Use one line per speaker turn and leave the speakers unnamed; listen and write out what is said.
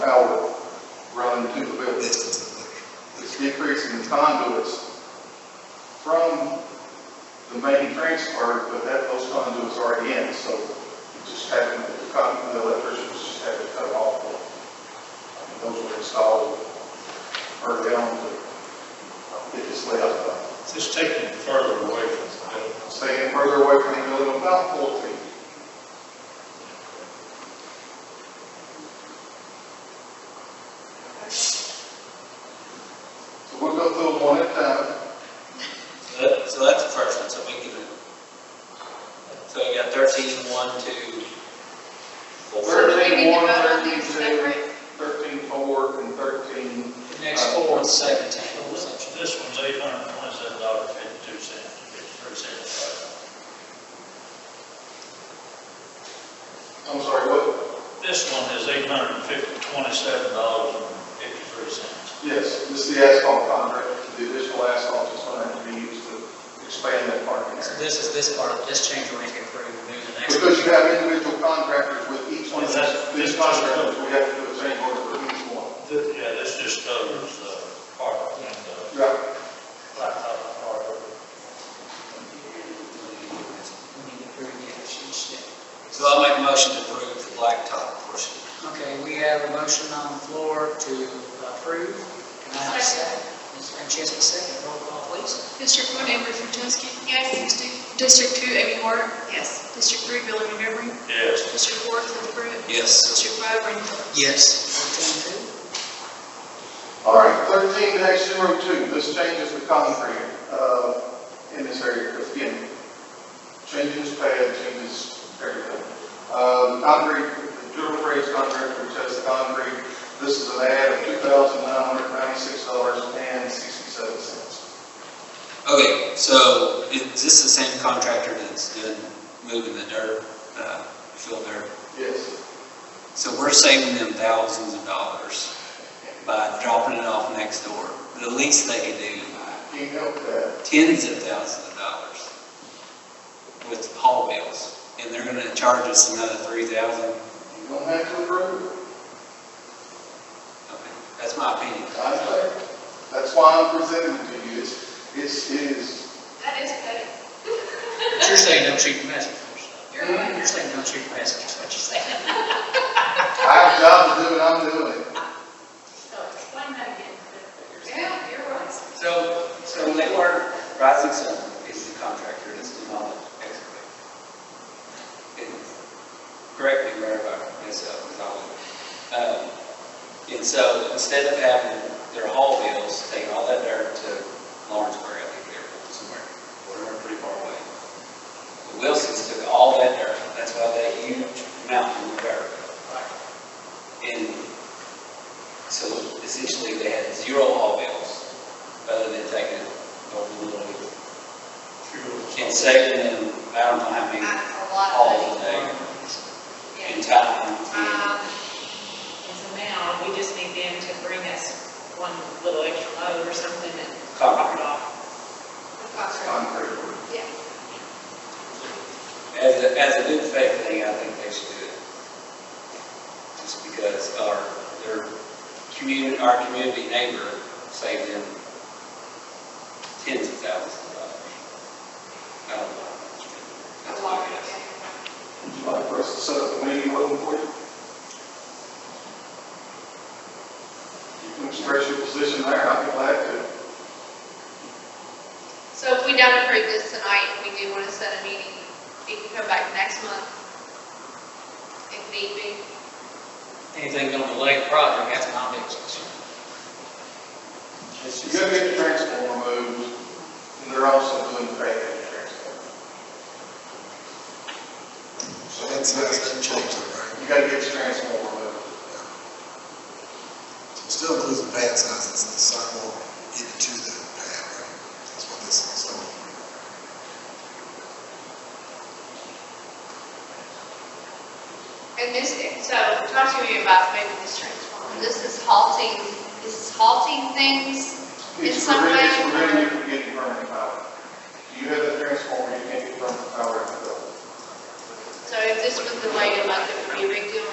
power running to the building. It's decreasing the conduits from the main transfer, but that, those conduits are already in, so it just happened, the con- the electricians just had to cut it off. And Those were installed early on to get this layout done.
It's just taking it further away from the building.
Staying further away from the building about four feet. So we'll go through them one at a time.
So that- so that's the first one, so we can, so you got thirteen, one, two,
So
four.
do we need to
13-1,
vote on these
13-2,
separate?
13-4, and thirteen,
The Next four and seventeen.
This one's eight hundred and twenty-seven dollars, fifty-two cents, fifty-three cents.
I'm sorry, what?
This one is eight hundred and fifty, twenty-seven dollars and fifty-three cents.
Yes, this is the asphalt contract, the additional asphalt is going to have to be used to expand that parking
So
area.
this is this part, this change we're making approved, move the next.
Because you have individual contractors with each one of
Well, that's-
these contractors, we have to do a change order for each one.
Th- Yeah, this just covers the park and the
Right.
blacktop part of it.
We need to approve the action step.
So I'll make a motion to approve the blacktop portion.
Okay, we have a motion on the floor to approve. Can I have a second? Ms. Francesca, second, roll call please.
District one, Amber Franceschi. Yes. District two, Amy Moore. Yes. District three, Billy Montgomery.
Yes,
District four, Cliff Pruitt.
Yes.
District five, Randy Phillips.
Yes. Fourteen two.
All right, thirteen dash zero two, this changes the concrete, uh, in this area, again, changes pad, changes everything. Um, concrete, the dual phrase contract, which has the concrete, this is an add of two thousand nine hundred ninety-six dollars and sixty-seven cents.
Okay, so is this the same contractor that's doing, moving the dirt, uh, fill dirt?
Yes,
So we're saving them thousands of dollars by dropping it off next door. The least they could do,
can you help that?
tens of thousands of dollars with haul bills. And they're gonna charge us another three thousand.
You don't have to approve,
Okay, That's my opinion.
it. I say, that's why I'm presenting it to you, it's, it's, it is,
That is petty.
But you're saying don't shoot the messengers. You're, you're saying don't shoot the messengers, what you're saying.
I have a job to do and I'm doing it.
So explain that again. Yeah, you're right.
So, so Lakeward Rising Sun is the contractor that's doing all the excavation. And Correct me where I myself, because I was, um, and so instead of having their haul bills, take all that dirt to Lawrenceburg, I think they're from somewhere, we're pretty far away. The Wilsons took all that dirt, that's why that huge mountain of dirt. And so essentially they had zero haul bills rather than taking it over the little,
sure.
and saving them, I don't know how many
That's a
hauls a day and time.
Um, And so now, we just need them to bring us one little extra load or something and knock it off.
Concrete.
Yeah.
As a, as a good faith thing, I think they should do it. Just because our, their community, our community neighbor saved them tens of thousands of dollars. I don't know. That's my guess.
Would you like for us to set up a meeting with them for you? You can express your position there, I'd be glad to.
So if we don't approve this tonight, we do want to set a meeting, we can come back next month if need be.
Anything on the lake project, that's my business.
It's
You
just-
gotta get the transformer moved, and they're also doing the paving transformer. So
That's, that's been changed, right?
You gotta get the transformer moved.
Still includes the pad sizes, the sidewalk into the pad, right? That's what this is, so.
And this, so talk to me about maybe this transformer. This is halting, this is halting things. In
It's
some
preventing-
way- uh,
It's preventing you from getting permanent power. You have the transformer, you can't get permanent power in the building.
So if this was the way to make it, would be a big deal